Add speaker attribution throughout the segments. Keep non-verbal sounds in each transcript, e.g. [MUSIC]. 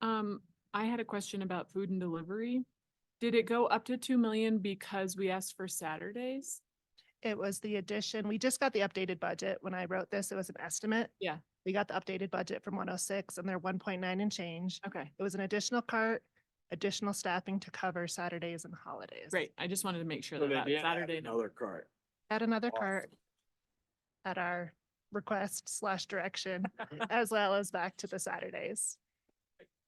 Speaker 1: Um, I had a question about food and delivery. Did it go up to two million because we asked for Saturdays?
Speaker 2: It was the addition, we just got the updated budget. When I wrote this, it was an estimate.
Speaker 1: Yeah.
Speaker 2: We got the updated budget from one oh six and they're one point nine and change.
Speaker 1: Okay,
Speaker 2: It was an additional cart, additional staffing to cover Saturdays and holidays.
Speaker 1: great. I just wanted to make sure
Speaker 3: So
Speaker 1: that
Speaker 3: they
Speaker 1: that
Speaker 3: did add
Speaker 1: Saturday. number-
Speaker 3: Another cart.
Speaker 2: Add another
Speaker 3: Awesome.
Speaker 2: cart at our request slash direction,
Speaker 1: [LAUGHS]
Speaker 2: as well as back to the Saturdays.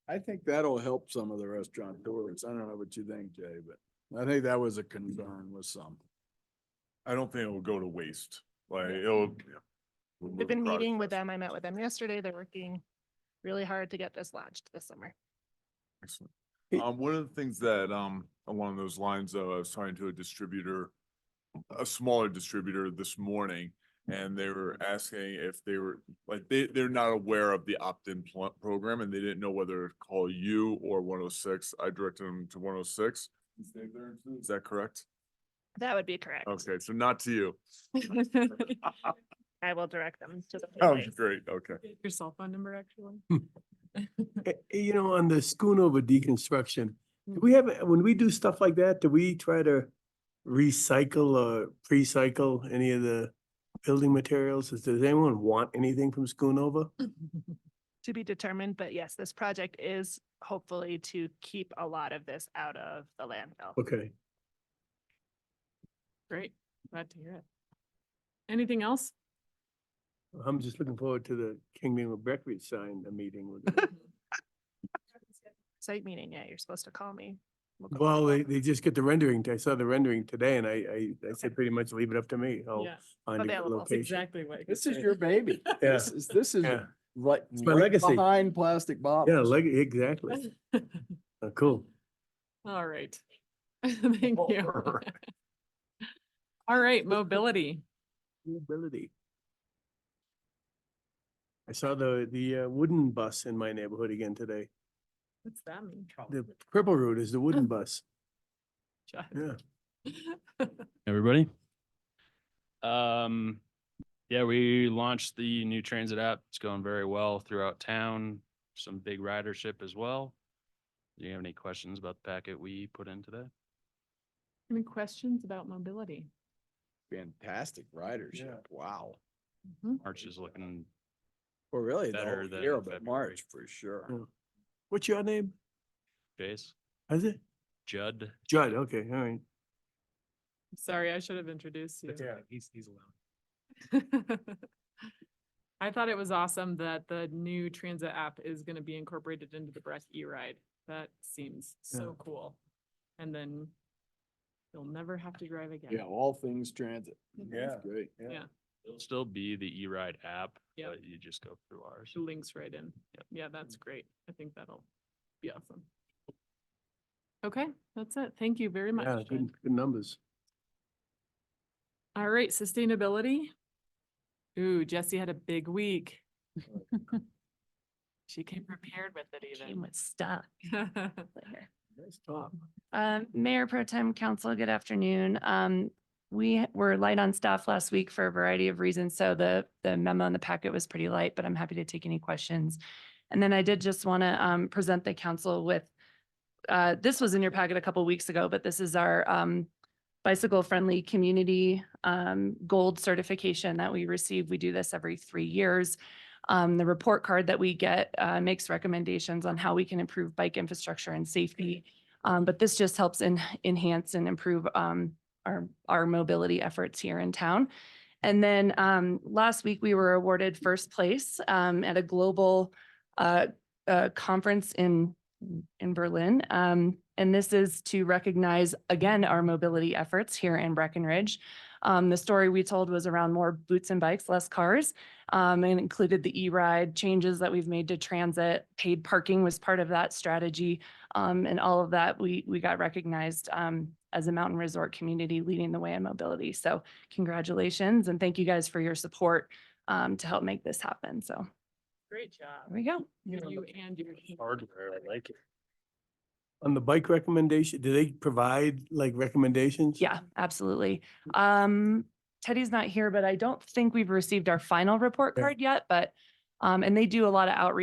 Speaker 3: I think that'll help some of the restaurateurs. I don't know what you think, Jay, but I think that was a concern with some.
Speaker 4: I don't think it'll go to waste, like
Speaker 3: Yeah.
Speaker 4: it'll.
Speaker 2: Mm-hmm. We've been meeting with them. I met with them yesterday. They're working really hard to get this launched this summer.
Speaker 4: Excellent. Um, one of the things that, um, along those lines, uh, I was talking to a distributor, a smaller distributor this morning, and they were asking if they were, like, they, they're not aware of the opt-in pl- program, and they didn't know whether to call you or one oh six. I directed them to one oh six. Is that correct?
Speaker 2: That would be correct.
Speaker 4: Okay, so not to you.
Speaker 1: [LAUGHS]
Speaker 3: [LAUGHS]
Speaker 2: I will direct them to the.
Speaker 4: Oh,
Speaker 2: place.
Speaker 4: great, okay.
Speaker 1: Your cell phone number,
Speaker 3: [LAUGHS]
Speaker 1: actually.
Speaker 5: Eh, eh, You know, on the Schoonover deconstruction, do
Speaker 1: Mm.
Speaker 5: we have, when we do stuff like that, do we try to recycle or pre-cycle any of the building materials? Does does anyone want anything from Schoonover?
Speaker 1: Mm.
Speaker 2: To be determined, but yes, this project is hopefully to keep a lot of this out of the landfill.
Speaker 5: Okay,
Speaker 1: Great, glad to hear it. Anything else?
Speaker 5: I'm just looking forward to the Kingdom of Breckridge sign, the meeting. with
Speaker 1: [LAUGHS]
Speaker 5: them.
Speaker 2: Site meeting, yeah, you're supposed to call me. We'll go
Speaker 5: Well,
Speaker 2: over
Speaker 5: they,
Speaker 2: it.
Speaker 5: they just get the rendering. I saw the rendering today and I, I, I said pretty much leave it up to me. I'll
Speaker 1: Yeah,
Speaker 5: find a good
Speaker 2: Available.
Speaker 1: that's
Speaker 5: location.
Speaker 1: exactly what. I
Speaker 3: This
Speaker 1: could
Speaker 3: is
Speaker 1: say.
Speaker 3: your baby.
Speaker 5: Yeah.
Speaker 3: This is, this is
Speaker 5: Yeah,
Speaker 3: right,
Speaker 5: It's my
Speaker 3: right
Speaker 5: legacy.
Speaker 3: behind plastic bottles.
Speaker 5: yeah, like,
Speaker 1: [LAUGHS]
Speaker 5: exactly. Oh, Cool.
Speaker 1: [LAUGHS] All right. [LAUGHS] Thank
Speaker 3: Oh, [LAUGHS]
Speaker 1: you. All right, mobility.
Speaker 5: Mobility. I saw the, the uh, wooden bus in my neighborhood again today.
Speaker 1: What's that mean?
Speaker 5: The purple route is the wooden bus.
Speaker 1: Just-
Speaker 5: Yeah.
Speaker 6: everybody. Um, yeah, we launched the new transit app. It's going very well throughout town. Some big ridership as well. Do you have any questions about the packet we put in today?
Speaker 1: [LAUGHS] Any questions about mobility?
Speaker 3: Fantastic ridership. Wow.
Speaker 1: Mhm.
Speaker 6: March is looking,
Speaker 3: Well, really, the
Speaker 6: Better
Speaker 3: whole
Speaker 6: than
Speaker 3: year,
Speaker 6: in
Speaker 3: but
Speaker 6: February.
Speaker 3: March for sure.
Speaker 5: Yeah. What's your name?
Speaker 6: Chase,
Speaker 5: Is it?
Speaker 6: Judd,
Speaker 5: Judd. Okay, all right.
Speaker 1: Sorry, I should have introduced you.
Speaker 5: he's, he's allowed.
Speaker 1: [LAUGHS] I thought it was awesome that the new transit app is gonna be incorporated into the Breck E-Ride. That seems so cool. And then you'll never have to drive again.
Speaker 3: Yeah, all things transit.
Speaker 1: Mhm.
Speaker 3: That's Great.
Speaker 1: Yeah.
Speaker 6: it'll still be the E-Ride app,
Speaker 1: Yep.
Speaker 6: but you just go through ours.
Speaker 1: It Links right in. Yeah, that's great. I think that'll be awesome. Okay, that's it. Thank you very much.
Speaker 5: Yeah,
Speaker 1: Jen.
Speaker 5: good, good numbers.
Speaker 1: All right, sustainability. Ooh, Jesse had a big week. [LAUGHS] She came prepared with it
Speaker 7: came
Speaker 1: even. [LAUGHS]
Speaker 7: with stuff later.
Speaker 5: Nice talk.
Speaker 7: Um, Mayor Pro Tem Council, good afternoon. Um, we were light on staff last week for a variety of reasons, so the, the memo in the packet was pretty light, but I'm happy to take any questions. And then I did just want to, um, present the council with, uh, this was in your packet a couple weeks ago, but this is our, um, bicycle-friendly community, um, gold certification that we receive. We do this every three years. Um, the report card that we get, uh, makes recommendations on how we can improve bike infrastructure and safety. Um, but this just helps en- enhance and improve, um, our, our mobility efforts here in town. And then, um, last week we were awarded first place, um, at a global, uh, uh, conference in, in Berlin. Um, and this is to recognize again, our mobility efforts here in Breckenridge. Um, the story we told was around more boots and bikes, less cars, um, and included the E-Ride changes that we've made to transit. Paid parking was part of that strategy. Um, and all of that, we, we got recognized, um, as a mountain resort community leading the way in mobility. So congratulations and thank you guys for your support, um, to help make this happen. So
Speaker 1: Great job.
Speaker 7: there we go.
Speaker 1: You and your. team.
Speaker 6: like it.
Speaker 5: On the bike recommendation, do they provide like recommendations?
Speaker 7: Yeah, absolutely. Um, Teddy's not here, but I don't think we've received our final report
Speaker 5: Yeah.
Speaker 7: card yet, but, um, and they do a lot of outreach